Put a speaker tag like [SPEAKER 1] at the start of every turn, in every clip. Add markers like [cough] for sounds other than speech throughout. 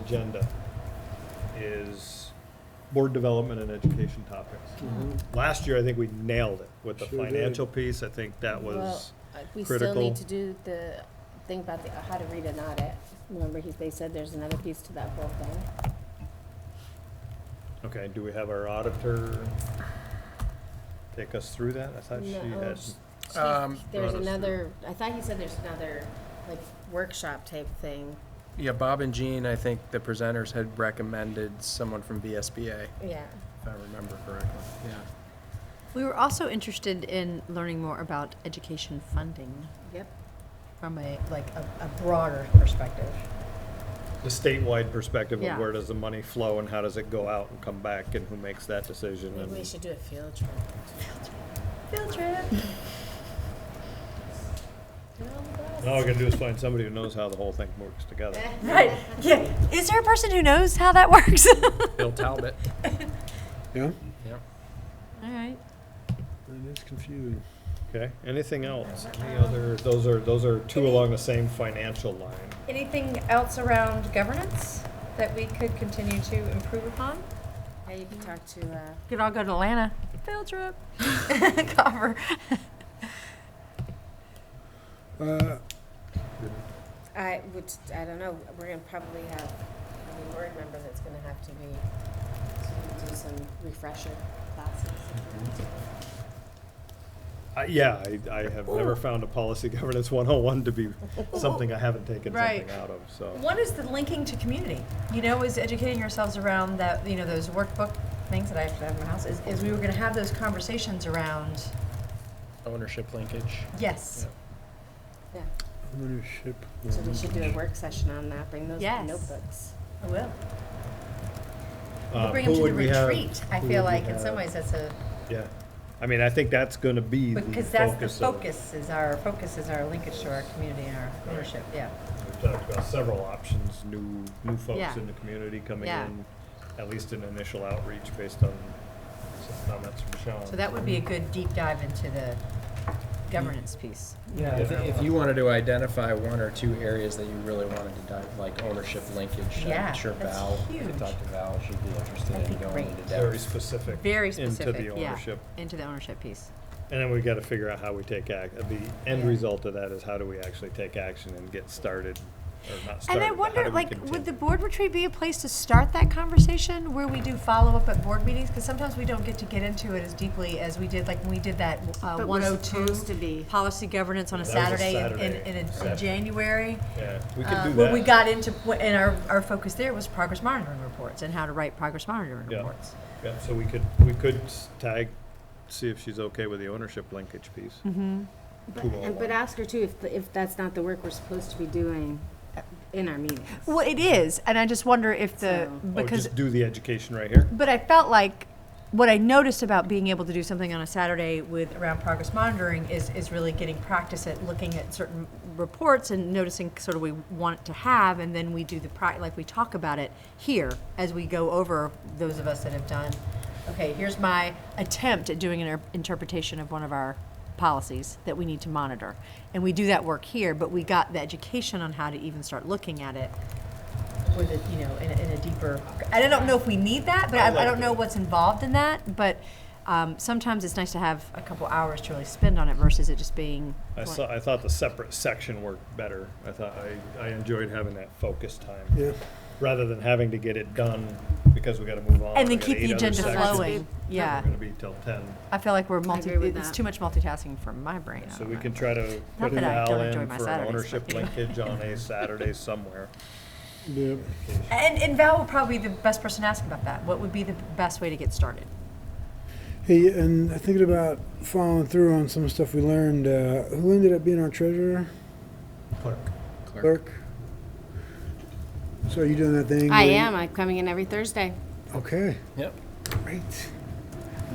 [SPEAKER 1] agenda is board development and education topics. Last year, I think we nailed it with the
[SPEAKER 2] Sure did.
[SPEAKER 1] financial piece. I think that was,
[SPEAKER 3] Well, uh, We still
[SPEAKER 1] critical.
[SPEAKER 3] need to do the thing about the, how to read an audit. Remember, he, they said there's another piece to that whole thing.
[SPEAKER 1] okay, do we have our auditor take us through that? I thought she
[SPEAKER 3] No,
[SPEAKER 1] had,
[SPEAKER 3] she-
[SPEAKER 4] Um,
[SPEAKER 3] she- There's
[SPEAKER 1] Brought us through.
[SPEAKER 3] another, I thought he said there's another, like, workshop type thing.
[SPEAKER 4] Yeah, Bob and Jean, I think the presenters had recommended someone from BSBA,
[SPEAKER 3] Yeah.
[SPEAKER 4] if I remember correctly. Yeah.
[SPEAKER 5] We were also interested in learning more about education funding
[SPEAKER 3] Yep.
[SPEAKER 5] from a, like, a, a broader perspective.
[SPEAKER 1] the statewide perspective of
[SPEAKER 5] Yeah.
[SPEAKER 1] where does the money flow and how does it go out and come back and who makes that decision?
[SPEAKER 3] Maybe we
[SPEAKER 1] And
[SPEAKER 3] should do a field trip.
[SPEAKER 5] Field trip.
[SPEAKER 1] and all we're gonna do is find somebody who knows how the whole thing works
[SPEAKER 3] [laughs]
[SPEAKER 1] together.
[SPEAKER 5] [laughs] Right, yeah. Is there a person who knows how that works? [laughs] All
[SPEAKER 4] Bill Talbot.
[SPEAKER 2] Yeah,
[SPEAKER 4] Yep.
[SPEAKER 5] right.
[SPEAKER 2] it is confusing.
[SPEAKER 1] Okay, anything else? Any other, those are, those are two along the same financial line.
[SPEAKER 6] Anything else around governance that we could continue to improve upon?
[SPEAKER 3] Yeah, you can talk to, uh,
[SPEAKER 5] Could all go to Atlanta. Field trip. [laughs] Cover.
[SPEAKER 2] Uh,
[SPEAKER 3] I would, I don't know, we're gonna probably have a new board member that's gonna have to be, to do some refresher classes.
[SPEAKER 1] Uh, yeah, I, I have never found a policy [laughs] governance 101 to be something I haven't taken
[SPEAKER 5] Right.
[SPEAKER 1] something out of, so.
[SPEAKER 5] One is the linking to community. You know, is educating yourselves around that, you know, those workbook things that I have to have in my house, is, is we were gonna have those conversations around,
[SPEAKER 4] [laughs] Ownership linkage.
[SPEAKER 5] yes.
[SPEAKER 3] Yeah,
[SPEAKER 2] ownership.
[SPEAKER 3] so we should do a work session on that, bring those
[SPEAKER 5] Yes.
[SPEAKER 3] notebooks.
[SPEAKER 5] I will.
[SPEAKER 1] uh,
[SPEAKER 5] Bring
[SPEAKER 1] who
[SPEAKER 5] them to the
[SPEAKER 1] would we have?
[SPEAKER 5] retreat. I
[SPEAKER 1] Who
[SPEAKER 5] feel
[SPEAKER 1] would we
[SPEAKER 5] like in some
[SPEAKER 1] have?
[SPEAKER 5] ways that's a,
[SPEAKER 1] Yeah, I mean, I think that's going to be the
[SPEAKER 5] because that's the
[SPEAKER 1] of-
[SPEAKER 5] focus is our, focus is our linkage to our community and our ownership, yeah.
[SPEAKER 1] We've talked about several options, new, new folks
[SPEAKER 5] Yeah.
[SPEAKER 1] in the community coming
[SPEAKER 5] Yeah.
[SPEAKER 1] in, at least an initial outreach based on some comments from Sean.
[SPEAKER 5] So that would be a good deep dive into the governance piece.
[SPEAKER 4] Yeah. If, if you wanted to identify one or two areas that you really wanted to dive, like ownership linkage, uh,
[SPEAKER 5] Yeah,
[SPEAKER 4] I'm sure
[SPEAKER 5] that's
[SPEAKER 4] Val, I
[SPEAKER 5] huge.
[SPEAKER 4] could talk to Val, she'd be
[SPEAKER 5] That'd
[SPEAKER 4] interested in
[SPEAKER 5] be
[SPEAKER 4] going
[SPEAKER 5] great.
[SPEAKER 4] into
[SPEAKER 1] Very
[SPEAKER 4] depth.
[SPEAKER 1] specific.
[SPEAKER 5] Very
[SPEAKER 1] Into
[SPEAKER 5] specific,
[SPEAKER 1] the
[SPEAKER 5] yeah,
[SPEAKER 1] ownership.
[SPEAKER 5] into the ownership piece.
[SPEAKER 1] And then we gotta figure out how we take act, the end
[SPEAKER 5] Yeah.
[SPEAKER 1] result of that is how do we actually take action and get started, or not
[SPEAKER 5] And
[SPEAKER 1] started,
[SPEAKER 5] I
[SPEAKER 1] but how
[SPEAKER 5] wonder,
[SPEAKER 1] do we
[SPEAKER 5] like, would the
[SPEAKER 1] continue?
[SPEAKER 5] board retreat be a place to start that conversation where we do follow-up at board meetings? Because sometimes we don't get to get into it as deeply as we did, like, when we did that uh,
[SPEAKER 3] But we're
[SPEAKER 5] 102
[SPEAKER 3] supposed to be.
[SPEAKER 5] policy governance on a
[SPEAKER 1] That was a
[SPEAKER 5] Saturday in- in,
[SPEAKER 1] Saturday
[SPEAKER 5] in, a-
[SPEAKER 1] session.
[SPEAKER 5] in January.
[SPEAKER 1] Yeah, we
[SPEAKER 5] uh,
[SPEAKER 1] could do
[SPEAKER 5] When we
[SPEAKER 1] that.
[SPEAKER 5] got into, and our, our focus there was progress monitoring reports and how to write progress monitoring
[SPEAKER 1] Yeah.
[SPEAKER 5] reports.
[SPEAKER 1] Yeah, so we could, we could s- tag, see if she's okay with the ownership linkage piece.
[SPEAKER 5] Mm-hmm.
[SPEAKER 3] But,
[SPEAKER 1] Who all
[SPEAKER 3] and- but
[SPEAKER 1] won?
[SPEAKER 3] ask her too, if, the- if that's not the work we're supposed to be doing in our meetings.
[SPEAKER 5] Well, it is, and I just wonder if the,
[SPEAKER 3] So-
[SPEAKER 1] Oh,
[SPEAKER 5] because
[SPEAKER 1] just do the education right here?
[SPEAKER 5] But I felt like what I noticed about being able to do something on a Saturday with around progress monitoring is is really getting practice at looking at certain reports and noticing sort of we want it to have, and then we do the pra- like we talk about it here as we go over those of us that have done. Okay, here's my attempt at doing an er- interpretation of one of our policies that we need to monitor, and we do that work here. But we got the education on how to even start looking at it with a, you know, in a, in a deeper, I don't know if we need that, but I, I don't know what's involved in that, but, um, sometimes it's nice to have a couple hours to really spend on it versus it just being.
[SPEAKER 1] I saw, I thought the separate section worked better. I thought, I, I enjoyed having that focus time.
[SPEAKER 2] Yeah.
[SPEAKER 1] Rather than having to get it done because we gotta move on.
[SPEAKER 5] And
[SPEAKER 1] we
[SPEAKER 5] then
[SPEAKER 1] got
[SPEAKER 5] keep
[SPEAKER 1] eight
[SPEAKER 5] the
[SPEAKER 1] other
[SPEAKER 5] agenda
[SPEAKER 1] sections.
[SPEAKER 5] flowing,
[SPEAKER 1] We're
[SPEAKER 5] yeah.
[SPEAKER 1] gonna be till ten.
[SPEAKER 5] I feel like we're multi,
[SPEAKER 3] agree with
[SPEAKER 5] it's
[SPEAKER 3] that.
[SPEAKER 5] too much multitasking for my brain. I
[SPEAKER 1] So
[SPEAKER 5] don't
[SPEAKER 1] we
[SPEAKER 5] know.
[SPEAKER 1] can try to
[SPEAKER 5] Not
[SPEAKER 1] put a
[SPEAKER 5] that I
[SPEAKER 1] dial
[SPEAKER 5] don't enjoy
[SPEAKER 1] in
[SPEAKER 5] my
[SPEAKER 1] for an
[SPEAKER 5] Saturdays,
[SPEAKER 1] ownership
[SPEAKER 5] but-
[SPEAKER 1] linkage on a Saturday somewhere.
[SPEAKER 2] Yeah.
[SPEAKER 5] And, and Val will probably be the best person to ask about that. What would be the best way to get started?
[SPEAKER 2] Hey, and thinking about following through on some stuff we learned, uh, who ended up being our treasurer?
[SPEAKER 1] Clerk.
[SPEAKER 2] Clerk? So are you doing that thing?
[SPEAKER 3] I
[SPEAKER 2] where you-
[SPEAKER 3] am, I'm coming in every Thursday.
[SPEAKER 2] Okay,
[SPEAKER 4] Yep.
[SPEAKER 2] great.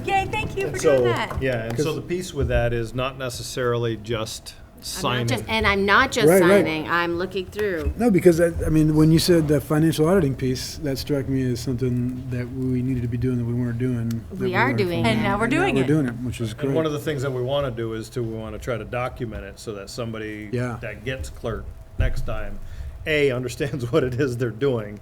[SPEAKER 5] Yay, thank you
[SPEAKER 1] And
[SPEAKER 5] for
[SPEAKER 1] so,
[SPEAKER 5] doing that.
[SPEAKER 1] yeah, and so
[SPEAKER 2] Because-
[SPEAKER 1] the piece with that is not necessarily just
[SPEAKER 3] I'm not just-
[SPEAKER 1] signing.
[SPEAKER 3] And I'm not just
[SPEAKER 2] Right, right.
[SPEAKER 3] signing, I'm looking through.
[SPEAKER 2] No, because I, I mean, when you said the financial auditing piece, that struck me as something that we needed to be doing that we weren't doing. that
[SPEAKER 3] We are
[SPEAKER 2] learned from
[SPEAKER 3] doing
[SPEAKER 2] them.
[SPEAKER 3] it. And
[SPEAKER 5] now we're doing
[SPEAKER 2] We're
[SPEAKER 5] it.
[SPEAKER 2] doing it, which is
[SPEAKER 1] And one of
[SPEAKER 2] great.
[SPEAKER 1] the things that we wanna do is to, we wanna try to document it so that somebody
[SPEAKER 2] Yeah.
[SPEAKER 1] [laughs] that gets clerk next time, A, understands what it is they're doing,